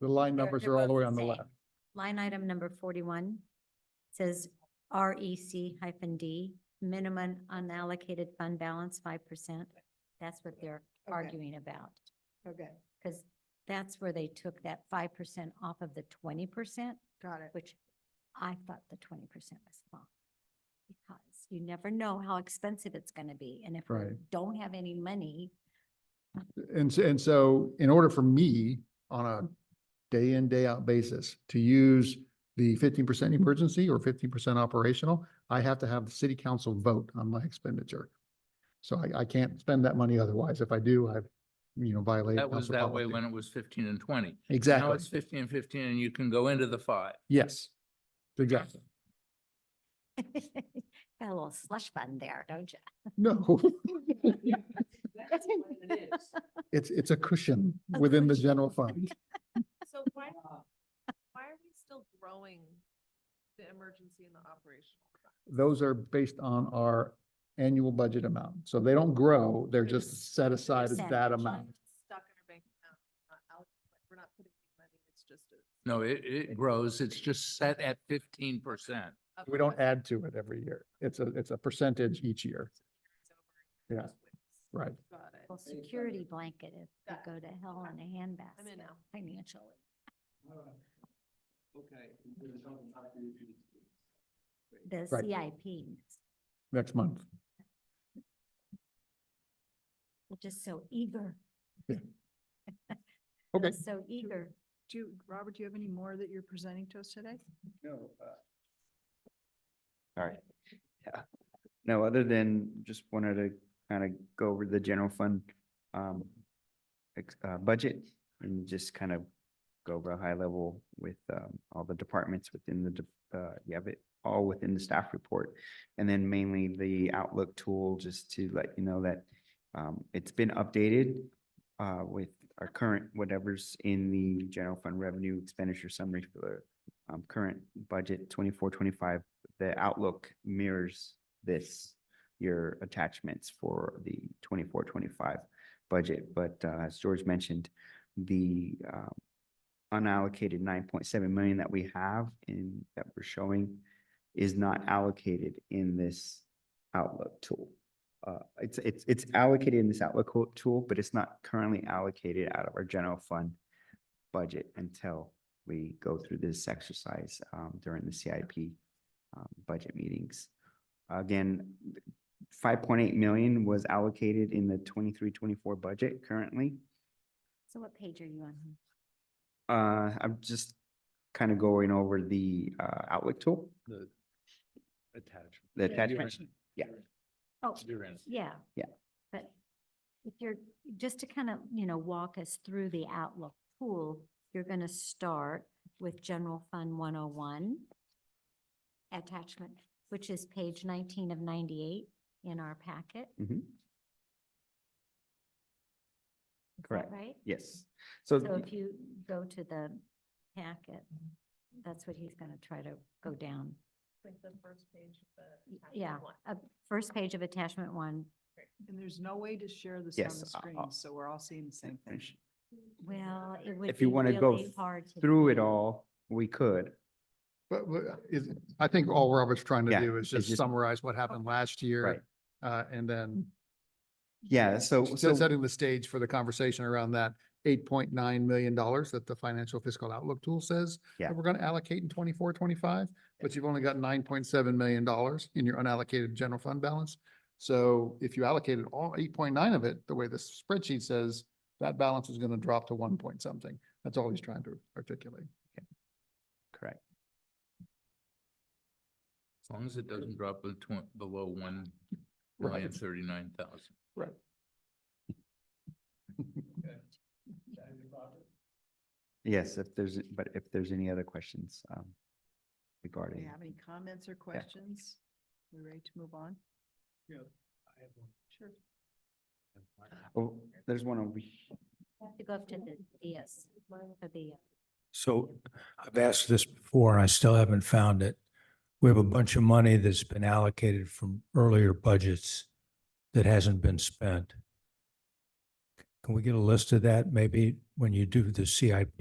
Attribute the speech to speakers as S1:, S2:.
S1: The line
S2: They're-
S1: numbers
S2: they're
S1: are all the
S2: both
S1: way on the
S2: same.
S1: left.
S2: Line item number forty-one says R E C hyphen D, minimum unallocated fund balance five percent. That's what they're
S3: Okay.
S2: arguing about,
S3: Okay,
S2: because that's where they took that five percent off of the twenty percent,
S3: got it.
S2: which I thought the twenty percent was fine. Because you never know how expensive it's gonna be, and if we
S1: Right.
S2: don't have any money,
S1: And, s- and so in order for me on a day in, day out basis to use the fifteen percent emergency or fifteen percent operational, I have to have the city council vote on my expenditure. So I, I can't spend that money otherwise. If I do, I've, you know, violated.
S4: That was
S1: council
S4: that way
S1: policy.
S4: when it was fifteen and twenty. Now
S1: Exactly.
S4: it's fifteen and fifteen and you can go into the five.
S1: Yes. Exactly.
S2: got a little slush fund there, don't you?
S1: No,
S3: That's what it is.
S1: it's, it's a cushion within the general fund.
S5: So why, why are we still growing the emergency and the operational? fund?
S1: Those are based on our annual budget amount. So they don't grow, they're just set aside as that
S2: Percentage.
S1: amount.
S5: Stuck in our bank account, not out, like, we're not putting any money, it's just a.
S4: No, it, it grows. It's just set at fifteen percent.
S5: up
S1: We don't
S5: budget.
S1: add to it every year. It's a, it's a percentage each year.
S5: It's over.
S1: Yeah, right.
S5: Got it.
S2: Well, security blanket if we
S5: Got
S2: go to hell in a
S5: I'm in
S2: handbasket
S5: now.
S2: financially. The
S1: Right.
S2: CIP,
S1: Next month.
S2: we're just so eager.
S1: Yeah.
S2: We're
S1: Okay.
S2: So eager.
S3: Do, you- Robert, do you have any more that you're presenting to us today?
S6: All right. Yeah. No, other than just wanted to kind of go over the general fund um ex- uh budget and just kind of go over a high level with um all the departments within the de- uh you have it all within the staff report. And then mainly the Outlook tool, just to let you know that um it's been updated uh with our current whatever's in the general fund revenue expenditure summary for the um current budget twenty-four, twenty-five the outlook mirrors this, your attachments for the 24-25 budget. But uh, as George mentioned, the um, unallocated nine point seven million that we have and that we're showing is not allocated in this outlook tool. Uh, It's, it's, it's allocated in this outlook co- tool, but it's not currently allocated out of our general fund budget until we go through this exercise um, during the CIP um, budget meetings. Again, five point eight million was allocated in the 23-24 budget currently.
S2: So what page are you on? hon?
S6: Uh, I'm just kind of going over the, uh, Outlook tool,
S4: The attachment.
S6: the
S3: Yeah,
S6: attachment. yeah.
S2: Oh,
S4: You're in.
S2: yeah.
S6: Yeah.
S2: But if you're, just to kind of, you know, walk us through the outlook pool, you're going to start with General Fund 101 attachment, which is page 19 of 98 in our packet.
S6: Mhm.
S2: Is that
S6: Correct.
S2: Right?
S6: Yes. So
S2: So
S6: y-
S2: if you go to the packet, that's what he's going to try to go down.
S5: Like the first page of the.
S2: Y-
S5: attachment
S2: Yeah,
S5: one.
S2: uh, first page of attachment one.
S3: And there's no way to share this on
S6: Yes,
S3: the
S6: I- I-
S3: screen, so we're all seeing the same thing.
S2: Well, it would
S6: If you
S2: be
S6: wanna go
S2: really hard to
S6: through it
S2: do.
S6: all, we could.
S1: But, but is, I think all Robert's trying to
S6: Yeah,
S1: do is
S6: it's
S1: just
S6: just-
S1: summarize what happened last year. Uh, and then
S6: Yeah, so,
S1: s-
S6: so,
S1: setting the stage for the conversation around that eight point nine million dollars that the financial fiscal outlook tool says
S6: Yeah.
S1: that we're going to allocate in 24, 25, but you've only got nine point seven million dollars in your unallocated general fund balance. So if you allocated all eight point nine of it, the way the spreadsheet says, that balance is going to drop to one point something. That's all he's trying to articulate.
S6: correct.
S4: As long as it doesn't drop be- twen- below one
S1: Right.
S4: million thirty-nine thousand.
S1: Right.
S6: Yes, if there's, but if there's any other questions, um,
S3: Do you
S6: regarding,
S3: have any comments or questions? We ready to move on? Sure.
S6: oh, there's one over here.
S2: You have to go up to the, yes, to the, uh,
S7: So I've asked this before and I still haven't found it. We have a bunch of money that's been allocated from earlier budgets that hasn't been spent. Can we get a list of that maybe when you do the CIP